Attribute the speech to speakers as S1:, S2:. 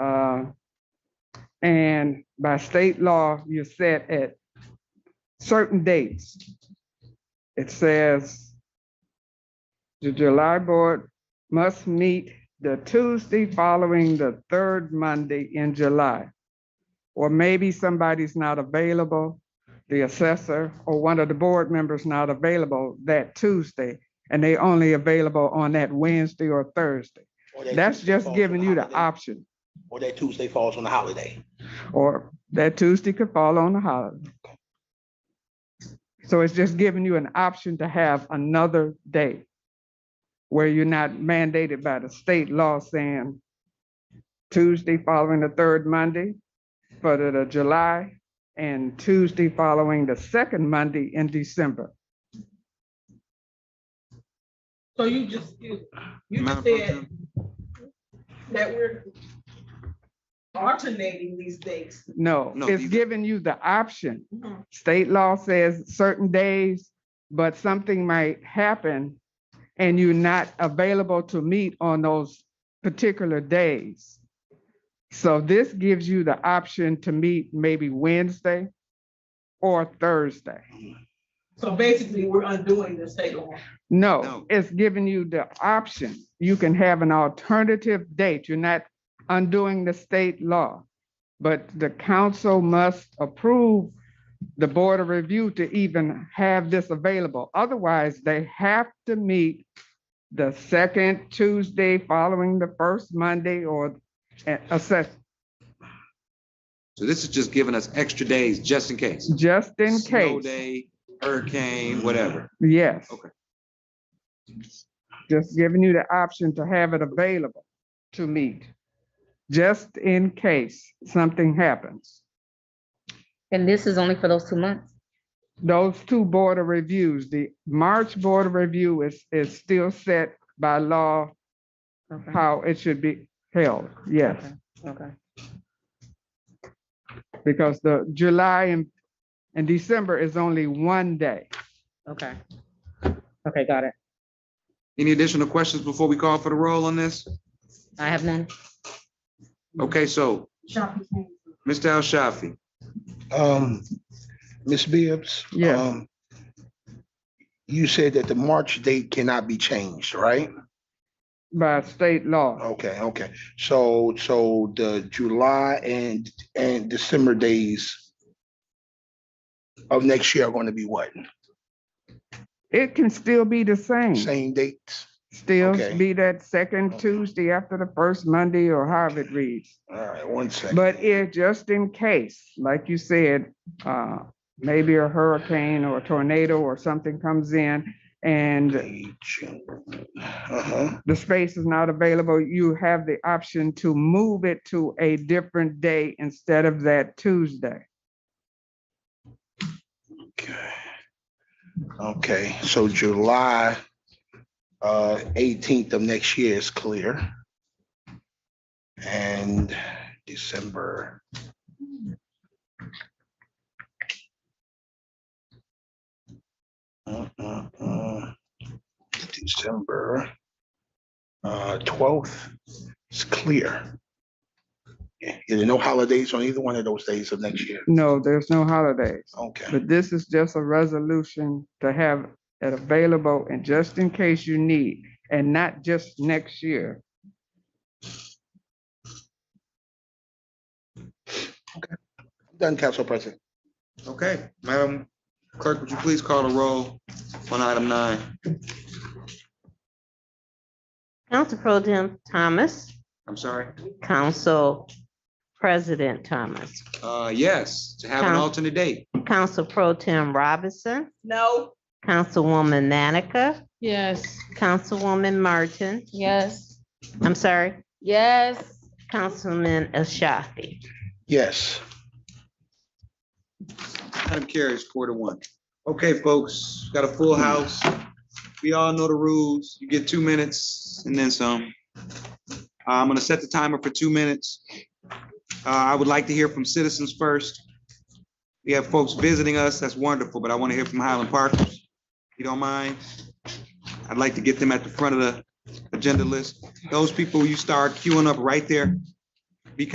S1: Uh, And by state law, you're set at certain dates. It says the July board must meet the Tuesday following the third Monday in July. Or maybe somebody's not available, the assessor or one of the board members not available that Tuesday, and they only available on that Wednesday or Thursday.
S2: Or that
S1: That's
S2: Tuesday
S1: just
S2: falls
S1: giving
S2: on a
S1: you the
S2: holiday,
S1: option.
S2: Or that Tuesday falls on a holiday.
S1: or that Tuesday could fall on a holiday. So it's just giving you an option to have another day where you're not mandated by the state law saying Tuesday following the third Monday for the the July and Tuesday following the second Monday in December.
S3: So you just, you, you
S4: Madam
S3: just
S4: Pro
S3: said that we're alternating these dates.
S1: No,
S4: No,
S1: it's
S4: these-
S1: giving you the option. State law says certain days, but something might happen and you're not available to meet on those particular days. So this gives you the option to meet maybe Wednesday or Thursday.
S3: So basically, we're undoing the state law.
S1: No,
S4: No.
S1: it's giving you the option. You can have an alternative date. You're not undoing the state law. But the council must approve the Board of Review to even have this available. Otherwise, they have to meet the second Tuesday following the first Monday or uh, assess,
S4: So this is just giving us extra days just in case.
S1: just in
S4: Snow
S1: case.
S4: day, hurricane, whatever.
S1: Yes.
S4: Okay.
S1: Just giving you the option to have it available to meet, just in case something happens.
S5: And this is only for those two months?
S1: Those two board of reviews, the March Board of Review is, is still set by law
S5: Okay.
S1: how it should be held, yes.
S5: Okay.
S1: Because the July and, and December is only one day.
S5: Okay. Okay, got it.
S4: Any additional questions before we call for the roll on this?
S5: I have none.
S4: Okay, so, Mr. Al Shafi,
S2: Um, Ms. Bibbs?
S1: Yes.
S2: um, You said that the March date cannot be changed, right?
S1: by state law.
S2: Okay, okay. So, so the July and, and December days of next year are going to be what?
S1: It can still be the same,
S2: Same dates?
S1: still
S2: okay.
S1: be that second Tuesday after the first Monday or however it reads.
S2: All right, one second.
S1: But if, just in case, like you said, uh, maybe a hurricane or a tornado or something comes in and
S2: Uh-huh.
S1: the space is not available, you have the option to move it to a different day instead of that Tuesday.
S2: Okay. Okay, so July uh eighteenth of next year is clear. And December. Uh, Mm-mm-mm. uh, December uh twelfth is clear. Yeah, there are no holidays on either one of those days of next year.
S1: No, there's no holidays.
S2: Okay,
S1: But this is just a resolution to have it available and just in case you need, and not just next year.
S2: done, Council President.
S4: okay, Madam Clerk, would you please call the roll on item nine?
S6: Council Pro Tem Thomas,
S4: I'm sorry,
S6: Council President Thomas,
S4: uh, yes, to have an
S6: Count.
S4: alternate date.
S6: Council Pro Tem Robinson,
S3: No,
S6: Councilwoman Manica,
S7: Yes.
S6: Councilwoman Martin,
S7: Yes.
S6: I'm sorry,
S7: Yes.
S6: Councilman Ashafi.
S2: Yes.
S4: Item carries four to one. Okay, folks, got a full house. We all know the rules. You get two minutes and then some. Uh, I'm gonna set the timer for two minutes. Uh, I would like to hear from citizens first. We have folks visiting us. That's wonderful, but I want to hear from Highland Parkers. if You don't mind? I'd like to get them at the front of the agenda list. Those people, you start queuing up right there.